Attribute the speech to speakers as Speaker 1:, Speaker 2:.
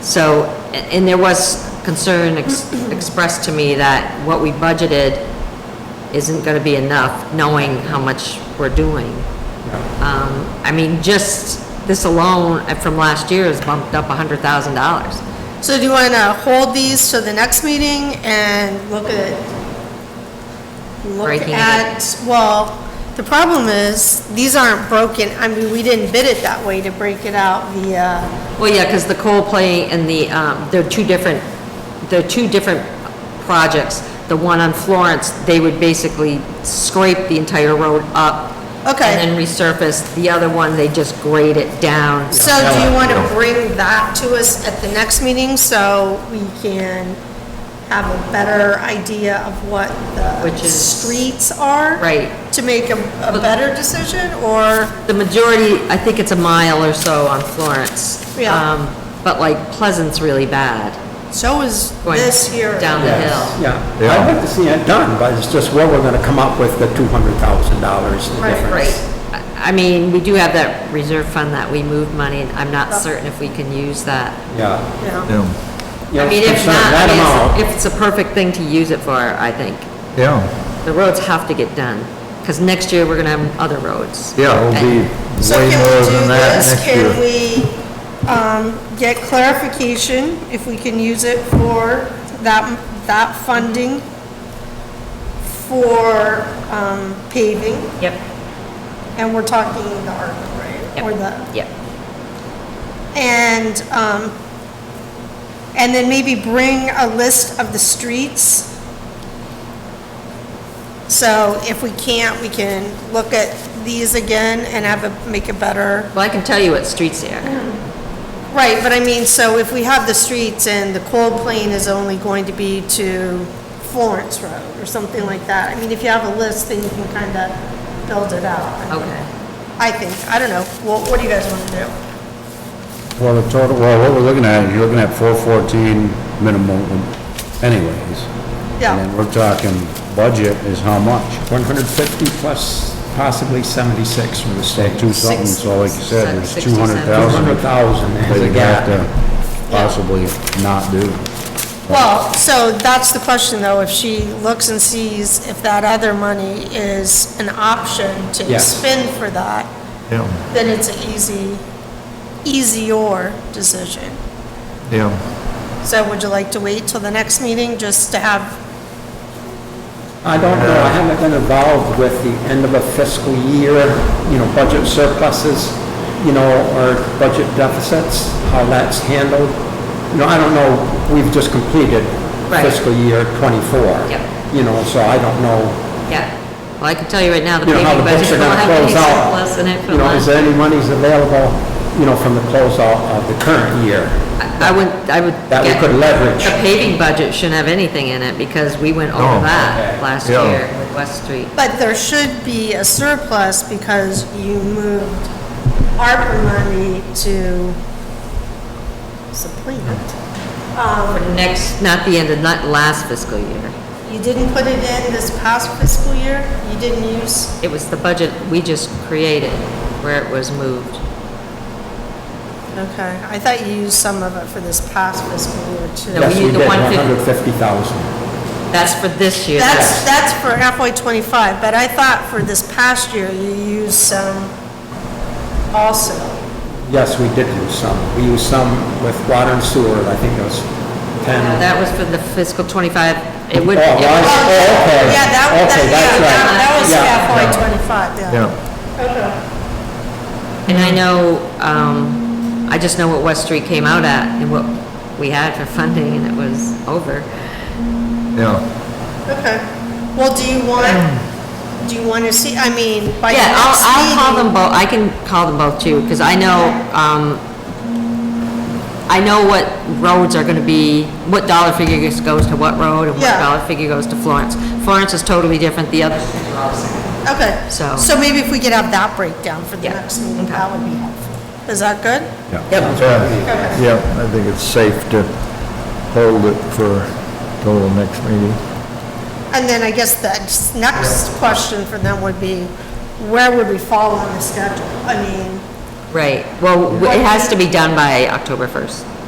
Speaker 1: So, a- and there was concern ex- expressed to me that what we budgeted isn't gonna be enough, knowing how much we're doing. Um, I mean, just this alone uh, from last year has bumped up hundred thousand dollars.
Speaker 2: So do you want to hold these to the next meeting and look at, look
Speaker 1: Breaking it.
Speaker 2: at, well, the problem is, these aren't broken, I mean, we didn't bid it that way to break it out via,
Speaker 1: Well, yeah, because the Coldplay and the, um, they're two different, they're two different projects. The one on Florence, they would basically scrape the entire road up.
Speaker 2: Okay.
Speaker 1: And then resurface. The other one, they just grade it down.
Speaker 2: so do you want to bring that to us at the next meeting so we can have a better idea of what the
Speaker 1: Which is-
Speaker 2: streets are?
Speaker 1: Right.
Speaker 2: To make a, a better decision, or?
Speaker 1: The majority, I think it's a mile or so on Florence.
Speaker 2: Yeah.
Speaker 1: Um, But like Pleasant's really bad.
Speaker 2: So is
Speaker 1: Going
Speaker 2: this here.
Speaker 1: down the hill.
Speaker 3: Yeah,
Speaker 4: Yeah.
Speaker 3: I'd like to see it done, but it's just where we're gonna come up with the two hundred thousand dollars difference.
Speaker 1: I I mean, we do have that reserve fund that we move money, and I'm not certain if we can use that.
Speaker 3: Yeah.
Speaker 2: Yeah.
Speaker 4: Yeah,
Speaker 3: You
Speaker 1: I
Speaker 3: know,
Speaker 1: mean, if
Speaker 3: concern
Speaker 1: not,
Speaker 3: that
Speaker 1: I
Speaker 3: amount.
Speaker 1: mean, it's, it's a perfect thing to use it for, I think.
Speaker 4: yeah,
Speaker 1: The roads have to get done, because next year, we're gonna have other roads.
Speaker 4: yeah, it'll be
Speaker 2: So
Speaker 4: way
Speaker 2: can
Speaker 4: more
Speaker 2: we do
Speaker 4: than that
Speaker 2: this?
Speaker 4: next year.
Speaker 2: Can we um, get clarification if we can use it for that, that funding for um, paving?
Speaker 1: Yep,
Speaker 2: And we're talking the ARPA, right? Or the,
Speaker 1: yep.
Speaker 2: and, um, and then maybe bring a list of the streets. So if we can't, we can look at these again and have a, make a better
Speaker 1: Well, I can tell you what streets they
Speaker 2: Mm.
Speaker 1: are.
Speaker 2: Right, but I mean, so if we have the streets and the cold plane is only going to be to Florence Road or something like that, I mean, if you have a list, then you can kind of build it out.
Speaker 1: Okay.
Speaker 2: I think, I don't know, what, what do you guys want to do?
Speaker 4: Well, the total, well, what we're looking at, you're looking at four fourteen minimum anyways. And
Speaker 2: Yeah,
Speaker 4: then we're talking budget is how much?
Speaker 3: One hundred fifty plus possibly seventy-six from the state.
Speaker 4: Two something, so like you said, there's
Speaker 1: Six-
Speaker 4: two hundred
Speaker 3: hundred
Speaker 4: thousand
Speaker 3: thousand is
Speaker 4: that
Speaker 3: a
Speaker 4: you have
Speaker 3: gap.
Speaker 4: to possibly not do.
Speaker 2: well, so that's the question though, if she looks and sees if that other money is an option to
Speaker 3: Yes.
Speaker 2: spend for that,
Speaker 4: Yeah,
Speaker 2: then it's an easy, easier decision.
Speaker 4: yeah.
Speaker 2: So would you like to wait till the next meeting just to have
Speaker 3: I don't know, I haven't been involved with the end of a fiscal year, you know, budget surpluses, you know, or budget deficits, how that's handled. You know, I don't know, we've just completed
Speaker 1: Right.
Speaker 3: fiscal year twenty-four.
Speaker 1: Yep.
Speaker 3: You know, so I don't know
Speaker 1: Yeah. Well, I can tell you right now, the
Speaker 3: you know, how
Speaker 1: paving
Speaker 3: the books
Speaker 1: budget
Speaker 3: are
Speaker 1: will
Speaker 3: gonna
Speaker 1: have any
Speaker 3: close out.
Speaker 1: surplus in it for
Speaker 3: You know, is
Speaker 1: last.
Speaker 3: there any monies available, you know, from the closeout of the current year?
Speaker 1: I I would, I would.
Speaker 3: That we
Speaker 1: get-
Speaker 3: could leverage.
Speaker 1: The paving budget shouldn't have anything in it, because we went
Speaker 4: No.
Speaker 1: over that
Speaker 3: Okay.
Speaker 1: last
Speaker 4: Yeah.
Speaker 1: year with West Street.
Speaker 2: But there should be a surplus because you moved ARPA money to supplement.
Speaker 1: For next, not the end of, not last fiscal year.
Speaker 2: You didn't put it in this past fiscal year? You didn't use,
Speaker 1: It was the budget we just created, where it was moved.
Speaker 2: okay, I thought you used some of it for this past fiscal year
Speaker 1: No,
Speaker 2: too.
Speaker 3: Yes,
Speaker 1: need
Speaker 3: we
Speaker 1: the
Speaker 3: did, one
Speaker 1: 150.
Speaker 3: hundred fifty thousand.
Speaker 1: That's for this year.
Speaker 2: That's, that's for FY twenty-five, but I thought for this past year you used some also.
Speaker 3: Yes, we did use some. We used some with water and sewer, I think it was
Speaker 1: No,
Speaker 3: ten.
Speaker 1: That was for the fiscal twenty-five, it would.
Speaker 3: Oh, it was?
Speaker 2: Yeah,
Speaker 3: okay.
Speaker 2: that,
Speaker 3: Okay, that's right.
Speaker 2: that, yeah,
Speaker 3: Yeah.
Speaker 2: that was FY twenty-five, yeah.
Speaker 4: Yeah,
Speaker 1: And I know, um, I just know what West Street came out at and what we had for funding and it was over.
Speaker 4: yeah.
Speaker 2: Okay. Well, do you want, do you want to see, I mean, by the
Speaker 1: Hmm. Yeah, I'll,
Speaker 2: next
Speaker 1: I'll call
Speaker 2: meeting-
Speaker 1: them both, I can call them both too, because I know, um, I know what roads are gonna be, what dollar figure goes- goes to what road and what
Speaker 2: Yeah.
Speaker 1: dollar figure goes to Florence. Florence is totally different, the other streets are all the same.
Speaker 2: Okay.
Speaker 1: So-
Speaker 2: So maybe if we could have that breakdown for the
Speaker 1: Yeah,
Speaker 2: next meeting,
Speaker 1: okay.
Speaker 2: that would be helpful. Is that good?
Speaker 4: Yeah, yeah, I think it's safe to hold it for till the next meeting.
Speaker 2: And then I guess the s- next question for them would be, where would we fall on the schedule? I mean,
Speaker 1: Right, well, w- it has to be done by October first.